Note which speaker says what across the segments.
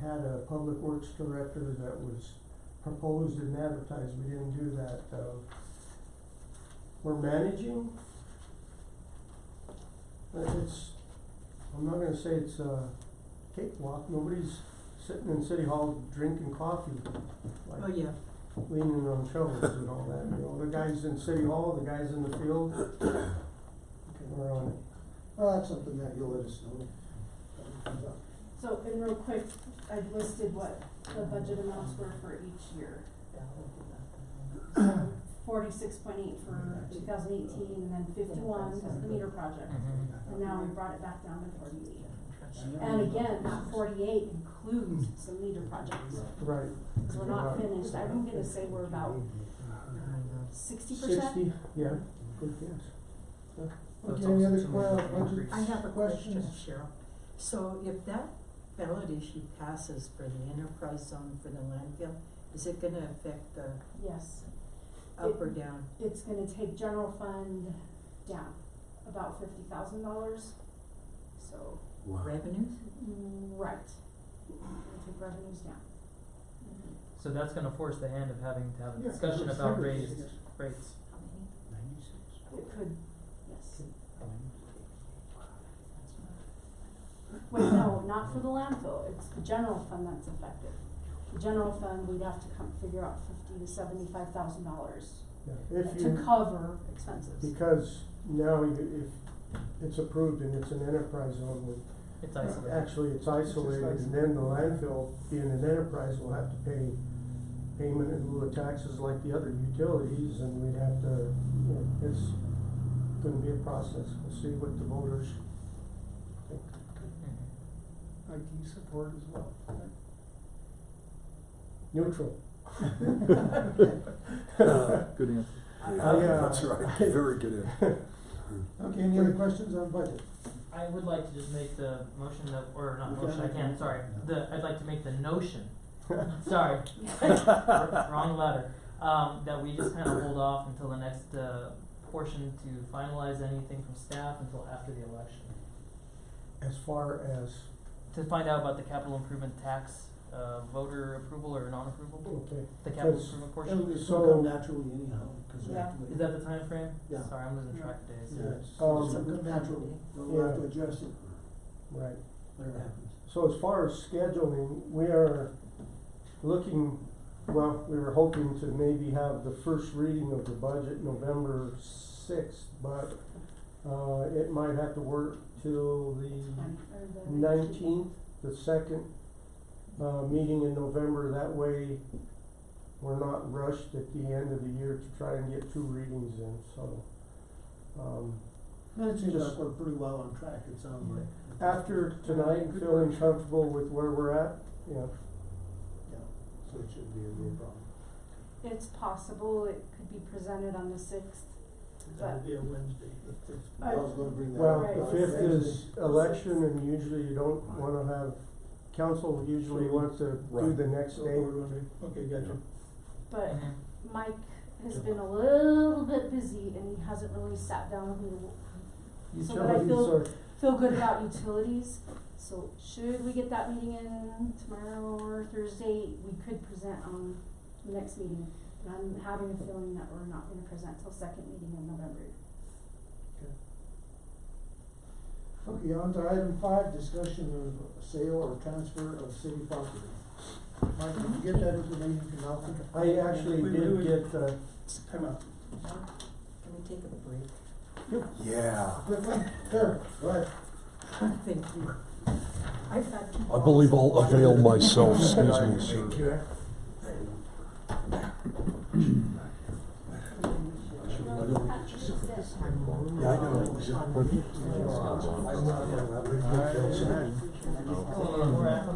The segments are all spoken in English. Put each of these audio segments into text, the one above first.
Speaker 1: had a public works director that was proposed and advertised, we didn't do that, um, we're managing. But it's, I'm not gonna say it's a cakewalk, nobody's sitting in city hall drinking coffee, like
Speaker 2: Oh, yeah,
Speaker 1: leaning on shovels and all that, you know, the guys in city hall, the guys in the field,
Speaker 3: Okay.
Speaker 1: we're on it.
Speaker 3: Well, that's Uh, something that you'll let us know. when it comes up.
Speaker 4: So, and real quick, I listed what the budget amounts were for each year. Forty-six point eight for two thousand eighteen, and then fifty-one because of the meter project. And now we brought it back down to forty-eight. And again, that forty-eight includes some meter projects,
Speaker 1: Right,
Speaker 4: because we're not finished. I'm gonna say we're about sixty percent.
Speaker 1: sixty, yeah, good guess.
Speaker 3: Okay, any other que- budgets?
Speaker 2: I have a question,
Speaker 3: Questions?
Speaker 2: Cheryl. So if that ballot issue passes for the enterprise zone for the landfill, is it gonna affect the
Speaker 4: Yes,
Speaker 2: up or down?
Speaker 4: it's gonna take general fund down about fifty thousand dollars, so.
Speaker 2: Revenues?
Speaker 4: Right. We'll take revenues down.
Speaker 5: So that's gonna force the hand of having to have a
Speaker 3: Yeah,
Speaker 5: discussion
Speaker 3: it's
Speaker 5: about
Speaker 3: never-
Speaker 5: raised rates.
Speaker 4: How many? It could, yes. Wait, no, not for the landfill, it's the general fund that's affected. The general fund, we'd have to come figure out fifty to seventy-five thousand dollars
Speaker 1: Yeah, if
Speaker 4: to
Speaker 1: you,
Speaker 4: cover expenses.
Speaker 1: because now you, if it's approved and it's an enterprise zone, we
Speaker 5: It's
Speaker 1: Uh,
Speaker 5: isolated.
Speaker 1: Actually, it's isolated, and then the landfill, being an enterprise, will have to pay payment in lieu of taxes like the other utilities, and we'd have to, you know, it's gonna be a process. We'll see what the voters think.
Speaker 5: Mhm.
Speaker 3: IT support as well.
Speaker 1: Neutral.
Speaker 6: Good answer.
Speaker 5: Mm-hmm.
Speaker 3: Uh,
Speaker 1: yeah.
Speaker 7: That's right, very good answer.
Speaker 3: Okay, any other questions on budget?
Speaker 5: I would like to just make the motion that, or
Speaker 3: You
Speaker 5: not
Speaker 3: can't
Speaker 5: motion, I
Speaker 3: make
Speaker 5: can't,
Speaker 3: it.
Speaker 5: sorry,
Speaker 3: No.
Speaker 5: the, I'd like to make the notion, sorry, wr- wrong letter, um, that we just kinda hold off until the next, uh, portion to finalize anything from staff until after the election.
Speaker 1: As far as,
Speaker 5: To find out about the capital improvement tax, uh, voter approval or non-approval,
Speaker 1: okay,
Speaker 5: the capital
Speaker 1: Because-
Speaker 5: improvement portion,
Speaker 3: It'll,
Speaker 1: So-
Speaker 3: it'll come naturally anyhow, cause we have to.
Speaker 5: is that the time frame?
Speaker 3: Yeah.
Speaker 5: Sorry, I'm losing track of days.
Speaker 3: Yeah,
Speaker 1: Yeah.
Speaker 3: it'll
Speaker 1: Um,
Speaker 3: come naturally, we'll have to adjust it,
Speaker 1: right.
Speaker 3: whatever happens.
Speaker 1: So as far as scheduling, we are looking, well, we were hoping to maybe have the first reading of the budget November sixth, but uh, it might have to work till the nineteenth, the second uh, meeting in November. That way, we're not rushed at the end of the year to try and get two readings in, so. um,
Speaker 3: And it seems
Speaker 1: Just-
Speaker 3: like we're pretty well on track, it sounds like.
Speaker 1: After tonight,
Speaker 3: Good
Speaker 1: feeling
Speaker 3: work.
Speaker 1: comfortable with where we're at, yeah,
Speaker 3: Yeah, so it shouldn't be a real problem.
Speaker 4: It's possible it could be presented on the sixth.
Speaker 3: That would be a Wednesday. That's- that's- I was gonna bring that
Speaker 1: Well,
Speaker 3: up.
Speaker 1: the
Speaker 4: Right.
Speaker 1: fifth is election and usually you don't wanna have, council usually wants to do
Speaker 7: Right.
Speaker 1: the next
Speaker 3: So
Speaker 1: day.
Speaker 3: we're gonna, okay, gotcha.
Speaker 4: But
Speaker 5: Mhm.
Speaker 4: Mike has been a little bit busy and he hasn't really sat down with me to So what I
Speaker 1: Utilities
Speaker 4: feel-
Speaker 1: are,
Speaker 4: feel good about utilities. So should we get that meeting in tomorrow or Thursday, we could present on the next meeting. But I'm having a feeling that we're not gonna present till second meeting in November.
Speaker 3: Okay, on to item five, discussion of sale or transfer of city property. Mike, did you get that information from Malcolm?
Speaker 1: I actually did get, uh,
Speaker 3: Time out.
Speaker 2: Can we take a break?
Speaker 7: Yeah,
Speaker 3: Quickly, sure, go ahead.
Speaker 2: Thank you. I've got two
Speaker 7: I believe
Speaker 2: bottles of
Speaker 7: I'll
Speaker 2: water.
Speaker 7: avail myself, excuse me, sir. Yeah, I know, it was a-
Speaker 1: Oh.
Speaker 5: We're at-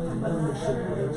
Speaker 3: I